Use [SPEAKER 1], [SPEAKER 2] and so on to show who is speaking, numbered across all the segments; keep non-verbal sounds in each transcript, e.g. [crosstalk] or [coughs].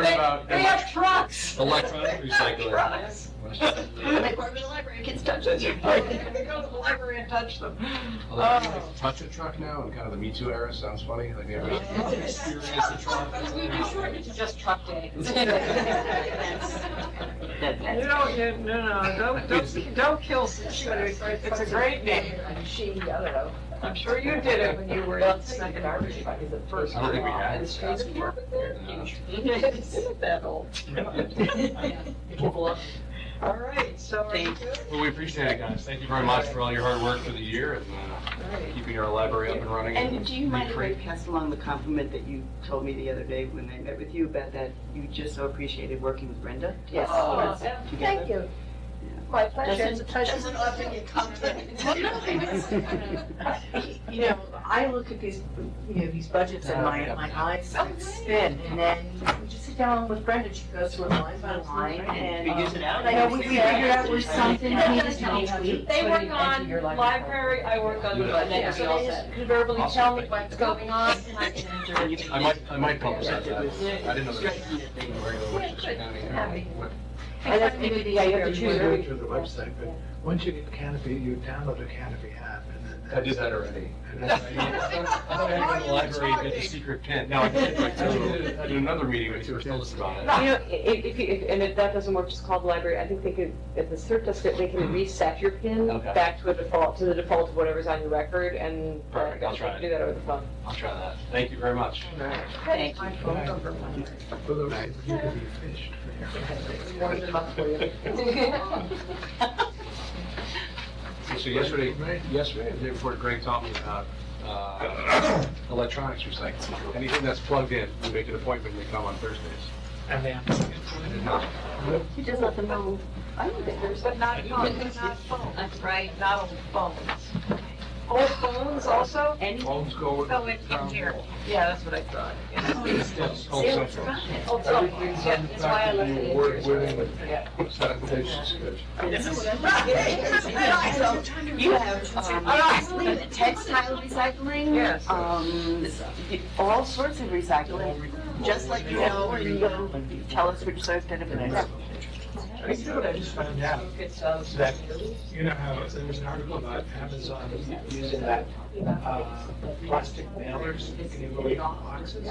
[SPEAKER 1] about
[SPEAKER 2] They have trucks.
[SPEAKER 1] electronic recycling?
[SPEAKER 2] Trucks. And they
[SPEAKER 1] Electronic
[SPEAKER 2] park in the library, kids touch those. They go to the library and touch them. Oh.
[SPEAKER 3] Touch a truck now in kind of the Me Too era, sounds funny. Like, yeah.
[SPEAKER 4] Just truck day.
[SPEAKER 2] You know, you- no, no, don't, don't, don't kill six minutes. It's a great name.
[SPEAKER 4] She, I don't know.
[SPEAKER 2] I'm sure you did it when you were in second
[SPEAKER 4] garbage
[SPEAKER 2] grade.
[SPEAKER 4] truck is the first.
[SPEAKER 3] I don't think we had
[SPEAKER 4] And
[SPEAKER 3] this
[SPEAKER 4] she was
[SPEAKER 3] fast
[SPEAKER 4] working there.
[SPEAKER 3] No.
[SPEAKER 2] Isn't that old? All right, so are you good?
[SPEAKER 3] Well, we appreciate it, guys. Thank you very much for all your hard work for the year and uh,
[SPEAKER 2] All right.
[SPEAKER 3] keeping our library up and running.
[SPEAKER 5] And do you mind if I
[SPEAKER 3] recreate-
[SPEAKER 5] pass along the compliment that you told me the other day when I met with you about that you just so appreciated working with Brenda?
[SPEAKER 4] Yes.
[SPEAKER 5] Together?
[SPEAKER 4] Oh. Thank you. My pleasure. It's a pleasure.
[SPEAKER 2] Doesn't often get complimented. Well, no,
[SPEAKER 3] [laughs]
[SPEAKER 4] You know, I look at these, you know, these budgets
[SPEAKER 6] Oh,
[SPEAKER 4] and my, my eyes
[SPEAKER 7] Oh,
[SPEAKER 4] start to spin. And then we just sit down with Brenda, she goes through it line by line and. um,
[SPEAKER 5] We use it out.
[SPEAKER 4] I know, we we figured out where something needs to be tweaked.
[SPEAKER 7] They work on library, I work on the budget, so they just verbally tell me what's going on, and I can
[SPEAKER 5] And
[SPEAKER 7] enjoy
[SPEAKER 5] you
[SPEAKER 7] it.
[SPEAKER 3] I might, I might publicize
[SPEAKER 5] It was-
[SPEAKER 3] that. I didn't know that.
[SPEAKER 5] Striking that they were-
[SPEAKER 3] Westchester County, you know, what-
[SPEAKER 4] And that's maybe the idea to
[SPEAKER 6] Everyone goes
[SPEAKER 4] choose.
[SPEAKER 6] to the website, but once you get Canopy, you download the Canopy app and then.
[SPEAKER 3] [laughs] I did that already.
[SPEAKER 6] and that's how you-
[SPEAKER 3] I thought I had to go to the library and get the secret pen. Now I did like two, in another meeting, we were told us about it.
[SPEAKER 8] You know, i- if, if, you- if- and if that doesn't work, just call the library, I think they could, if the cert does it, they can reset your pin
[SPEAKER 3] Okay.
[SPEAKER 8] back to a default, to the default of whatever's on your record, and. uh,
[SPEAKER 3] Perfect, I'll try it.
[SPEAKER 8] Do that over the phone.
[SPEAKER 3] I'll try that. Thank you very much.
[SPEAKER 5] Thank you.
[SPEAKER 6] For those, you could be fished.
[SPEAKER 4] Warm them up for you.
[SPEAKER 3] [laughs] So- So yesterday, yesterday, the day before, Greg taught me about uh, [coughs] electronics recycling. Anything that's plugged in, we make an appointment, they come on Thursdays.
[SPEAKER 6] And then.
[SPEAKER 4] You just let them know. I don't think there's.
[SPEAKER 2] But not phones, not phones, right? Not old phones. Old phones also?
[SPEAKER 3] Phones go.
[SPEAKER 2] Oh, in in here. Oh, Yeah, that's what I thought.
[SPEAKER 3] Yes, home central.
[SPEAKER 2] Old phones, Oh, yeah, that's why I left it in here.
[SPEAKER 6] Presentations.
[SPEAKER 5] So you have, um, textile recycling.
[SPEAKER 2] Yes.
[SPEAKER 5] Um, all sorts of recycling, just like you know, and you tell us which sort of benefit.
[SPEAKER 6] I see what I just found out, that, you know how, there was an article about Amazon using that, uh, plastic mailers, you can go on boxes.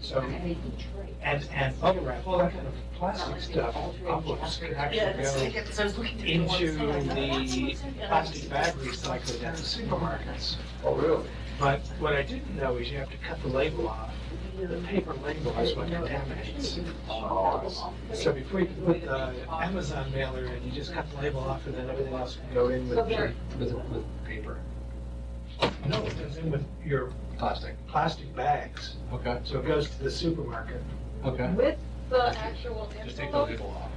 [SPEAKER 6] So, and, and bubble wrap, all that kind of plastic stuff, envelopes can actually go into the plastic bag recycling at the supermarkets.
[SPEAKER 3] Oh, really?
[SPEAKER 6] But what I didn't know is you have to cut the label off. The paper label is what contaminates. So before you can put the Amazon mailer in, you just cut the label off and then everything else can go in with, your-
[SPEAKER 3] With, with paper,
[SPEAKER 6] no, it goes in with your
[SPEAKER 3] plastic.
[SPEAKER 6] plastic bags.
[SPEAKER 3] Okay,
[SPEAKER 6] So it goes to the supermarket.
[SPEAKER 3] okay.
[SPEAKER 7] With the actual
[SPEAKER 3] Just take the
[SPEAKER 7] envelope,
[SPEAKER 3] label off.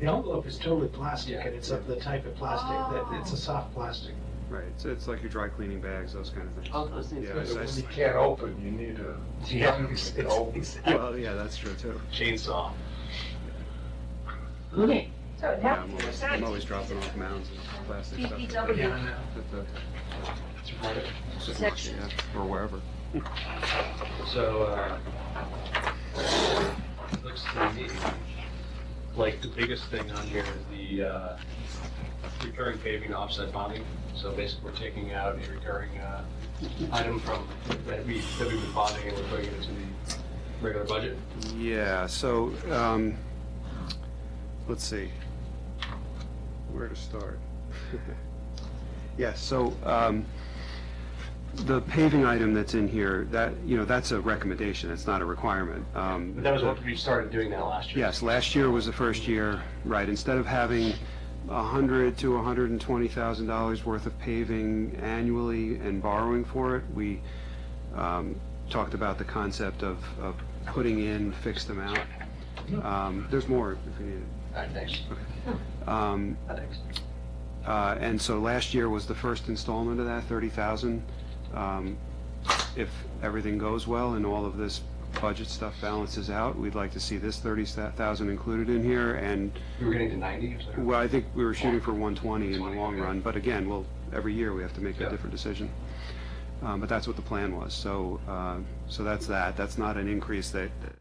[SPEAKER 6] The envelope is totally plastic and it's of the type of plastic that, it's a soft plastic.
[SPEAKER 9] Right, so it's like your dry cleaning bags, those kind of things.
[SPEAKER 5] All Oh, those things.
[SPEAKER 9] Yeah, it's nice.
[SPEAKER 3] can't open, [laughs] you need a. Yeah.
[SPEAKER 9] Well, yeah, that's true too.
[SPEAKER 3] Chainsaw.
[SPEAKER 2] So it
[SPEAKER 9] Yeah,
[SPEAKER 2] happened.
[SPEAKER 9] I'm always, I'm always dropping off mounds of plastic stuff at
[SPEAKER 6] Yeah, I know.
[SPEAKER 9] the
[SPEAKER 3] Right.
[SPEAKER 9] supermarket, yeah, or wherever.
[SPEAKER 3] So, uh, looks to me like the biggest thing on here is the, uh, recurring paving offset bonding. So basically, we're taking out a recurring, uh, item from, that we, that we've been bonding and we're putting it into the regular budget.
[SPEAKER 9] Yeah, so, um, let's see, where to start? [laughs] Yeah, so, um, the paving item that's in here, that, you know, that's a recommendation, it's not a requirement. Um,
[SPEAKER 3] But that was what we started doing that last year.
[SPEAKER 9] Yes, last year was the first year, right, instead of having a hundred to hundred and twenty thousand dollars worth of paving annually and borrowing for it, we um, talked about the concept of, of putting in fixed amount. Um, There's more if you need it.
[SPEAKER 3] All right, thanks.
[SPEAKER 9] Um, uh, And so last year was the first installment of that, 30,000. Um, If everything goes well and all of this budget stuff balances out, we'd like to see this 30,000 included in here. And,
[SPEAKER 3] We were getting to ninety or something.
[SPEAKER 9] well, I think we were shooting for 120 in the long
[SPEAKER 3] 120, okay.
[SPEAKER 9] run, but again, well, every year we have to make
[SPEAKER 3] Yeah.
[SPEAKER 9] a different decision. Um, But that's what the plan was. So, uh, so that's that. That's not an increase that that